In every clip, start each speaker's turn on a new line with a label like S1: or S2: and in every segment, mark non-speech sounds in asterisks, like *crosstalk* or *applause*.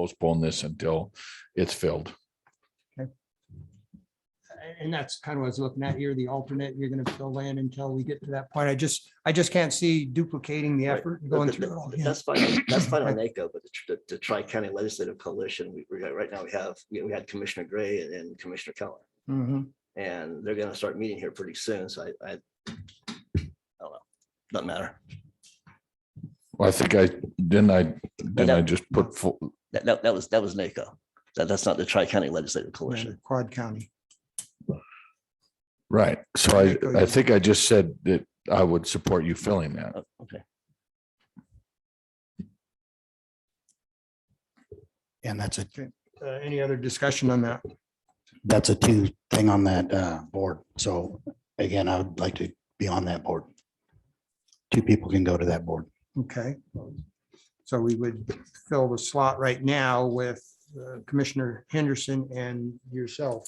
S1: postpone this until it's filled.
S2: and that's kind of what I was looking at here, the alternate, you're gonna fill in until we get to that point. I just, I just can't see duplicating the
S3: Right.
S2: effort and
S3: Th-
S2: going
S3: th-
S2: through it all
S3: th-
S2: again.
S3: That's fine, that's
S2: *coughs*
S3: fine on NACO, but the tr- the, the Tri-County Legislative Coalition, we, we got, right now we have, we we had Commissioner Gray and- and Commissioner Keller.
S2: Mhm.
S3: And they're gonna start meeting here pretty soon, so I, I, I don't know, doesn't matter.
S1: Well, I think I, didn't I, didn't I just put, full-
S3: That, that, that was, that was NACO. That, that's not the Tri-County Legislative Coalition.
S2: Quad County.
S1: right, so I, I think I just said that I would support you filling that.
S3: Oh, Okay,
S4: And that's a,
S2: Uh, any other discussion on that?
S4: that's a two thing on that uh, board. So again, I would like to be on that board. Two people can go to that board.
S2: Okay. So we would fill the slot right now with uh, Commissioner Henderson and yourself.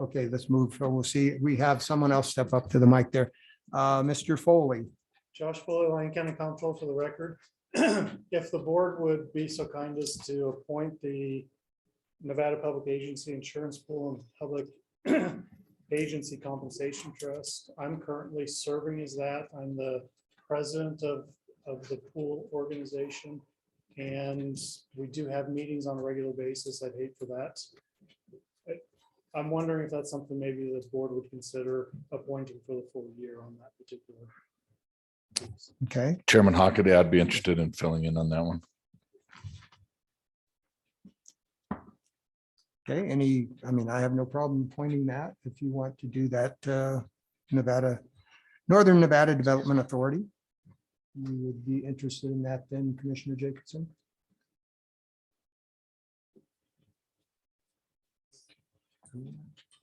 S2: Okay, let's move. So we'll see, we have someone else step up to the mic there. Uh, Mr. Foley.
S5: Josh Foley, Lyon County Council for the record. *clears throat* If the board would be so kind as to appoint the Nevada Public Agency Insurance Pool and Public *clears throat* Agency Compensation Trust, I'm currently serving as that. I'm the president of, of the pool organization. And we do have meetings on a regular basis. I'd hate for that. But I'm wondering if that's something maybe the board would consider appointing for the full year on that particular
S2: Okay,
S1: Chairman Hockaday, I'd be interested in filling in on that one.
S2: okay, any, I mean, I have no problem pointing that if you want to do that, uh, Nevada, Northern Nevada Development Authority. You would be interested in that then, Commissioner Jacobson?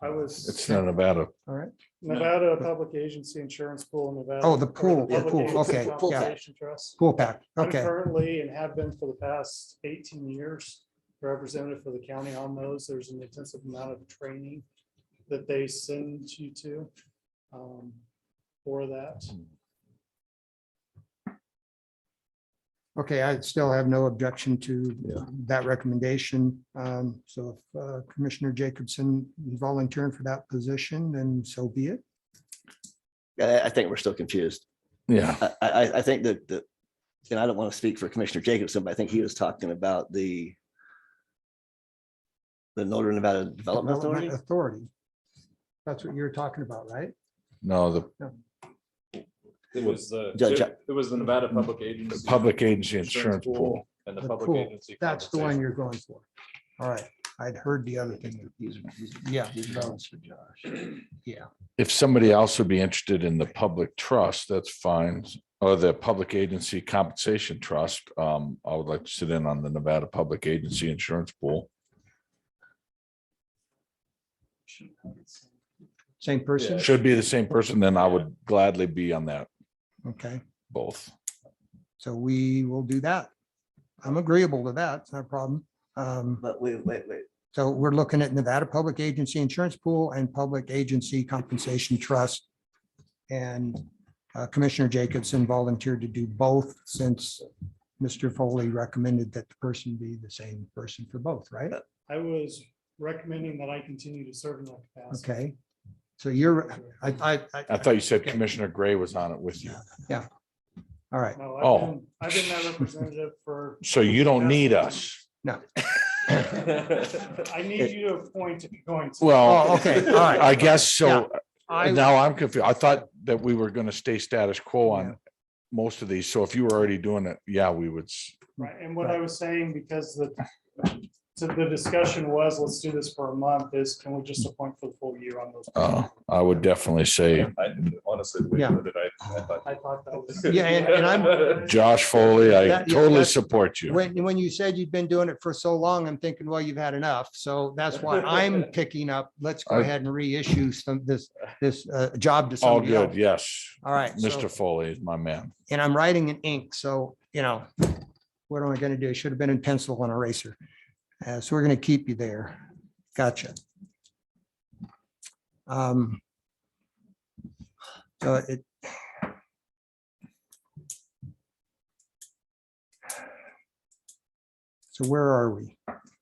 S5: I was.
S1: It's not Nevada.
S2: All right,
S5: Nevada Public Agency Insurance Pool, Nevada.
S2: Oh, the pool,
S3: the
S5: Public
S3: pool,
S5: Agency
S2: okay, yeah.
S5: Compensation Trust.
S2: pool pack,
S5: I'm
S2: okay.
S5: currently and have been for the past eighteen years representative for the county on those. There's an intensive amount of training that they send you to um, for that.
S2: Okay, I still have no objection to that recommendation. Um, So if uh, Commissioner Jacobson volunteering for that position, then so be it.
S3: I, I think we're still confused.
S1: Yeah,
S3: I, I, I- I think that, the and I don't want to speak for Commissioner Jacobson, but I think he was talking about the the Northern Nevada Development Authority.
S2: Authority. That's what you're talking about, right?
S1: no, the
S6: It was the,
S3: Ju- ju-
S6: it was the Nevada Public
S1: the
S6: Agency.
S1: public agency insurance pool.
S6: And the
S2: The
S6: public
S2: pool.
S6: agency.
S2: That's the one
S6: compensation.
S2: you're going for. All right, I'd heard the other thing. Yeah. Yeah.
S1: If somebody else would be interested in the public trust, that's fine, or the public agency compensation trust, um, I would like to sit in on the Nevada Public Agency Insurance Pool.
S2: Same person?
S1: Should be the same person, then I would gladly be on that,
S2: Okay,
S1: both.
S2: so we will do that. I'm agreeable to that. It's not a problem. Um,
S3: But wait, wait, wait.
S2: So we're looking at Nevada Public Agency Insurance Pool and Public Agency Compensation Trust. And uh, Commissioner Jacobson volunteered to do both since Mr. Foley recommended that the person be the same person for both, right?
S5: I was recommending that I continue to serve in that capacity.
S2: Okay. So you're, I, I,
S1: I thought you said Commissioner Gray was on it with you.
S2: all right.
S5: No,
S1: Oh.
S5: I've been, I've been that representative for
S1: *laughs* So you don't need us.
S5: I need you to appoint if you're going to.
S1: Well,
S2: Oh, okay, all right.
S1: I guess
S2: Yeah.
S1: so.
S2: I-
S1: Now I'm confused. I thought that we were going to stay status quo on most of these. So if you were already doing it, yeah, we would. s-
S5: Right, and what I was saying, because the, so the discussion was, let's do this for a month, is can we just appoint for the full year on those?
S1: Uh, I would definitely say
S6: *laughs* I honestly, the way
S2: Yeah.
S6: you put it, I- I thought-
S5: I thought that was.
S2: Yeah, and- and
S5: *laughs*
S2: I'm-
S1: Josh Foley, I
S2: That- yeah,
S1: totally
S2: that's-
S1: support you.
S2: When, when you said you'd been doing it for so long, I'm thinking, well, you've had enough. So that's
S1: *laughs*
S2: why I'm picking up. Let's go
S1: I-
S2: ahead and reissue some, this, this uh, job to
S1: All
S2: somebody
S1: good,
S2: else.
S1: yes.
S2: All right. so-
S1: Mr. Foley is my man.
S2: and I'm writing in ink, so, you know, what am I gonna do? It should have been in pencil on eraser. Uh, so we're gonna keep you there. Gotcha. Um. So it. So where are we?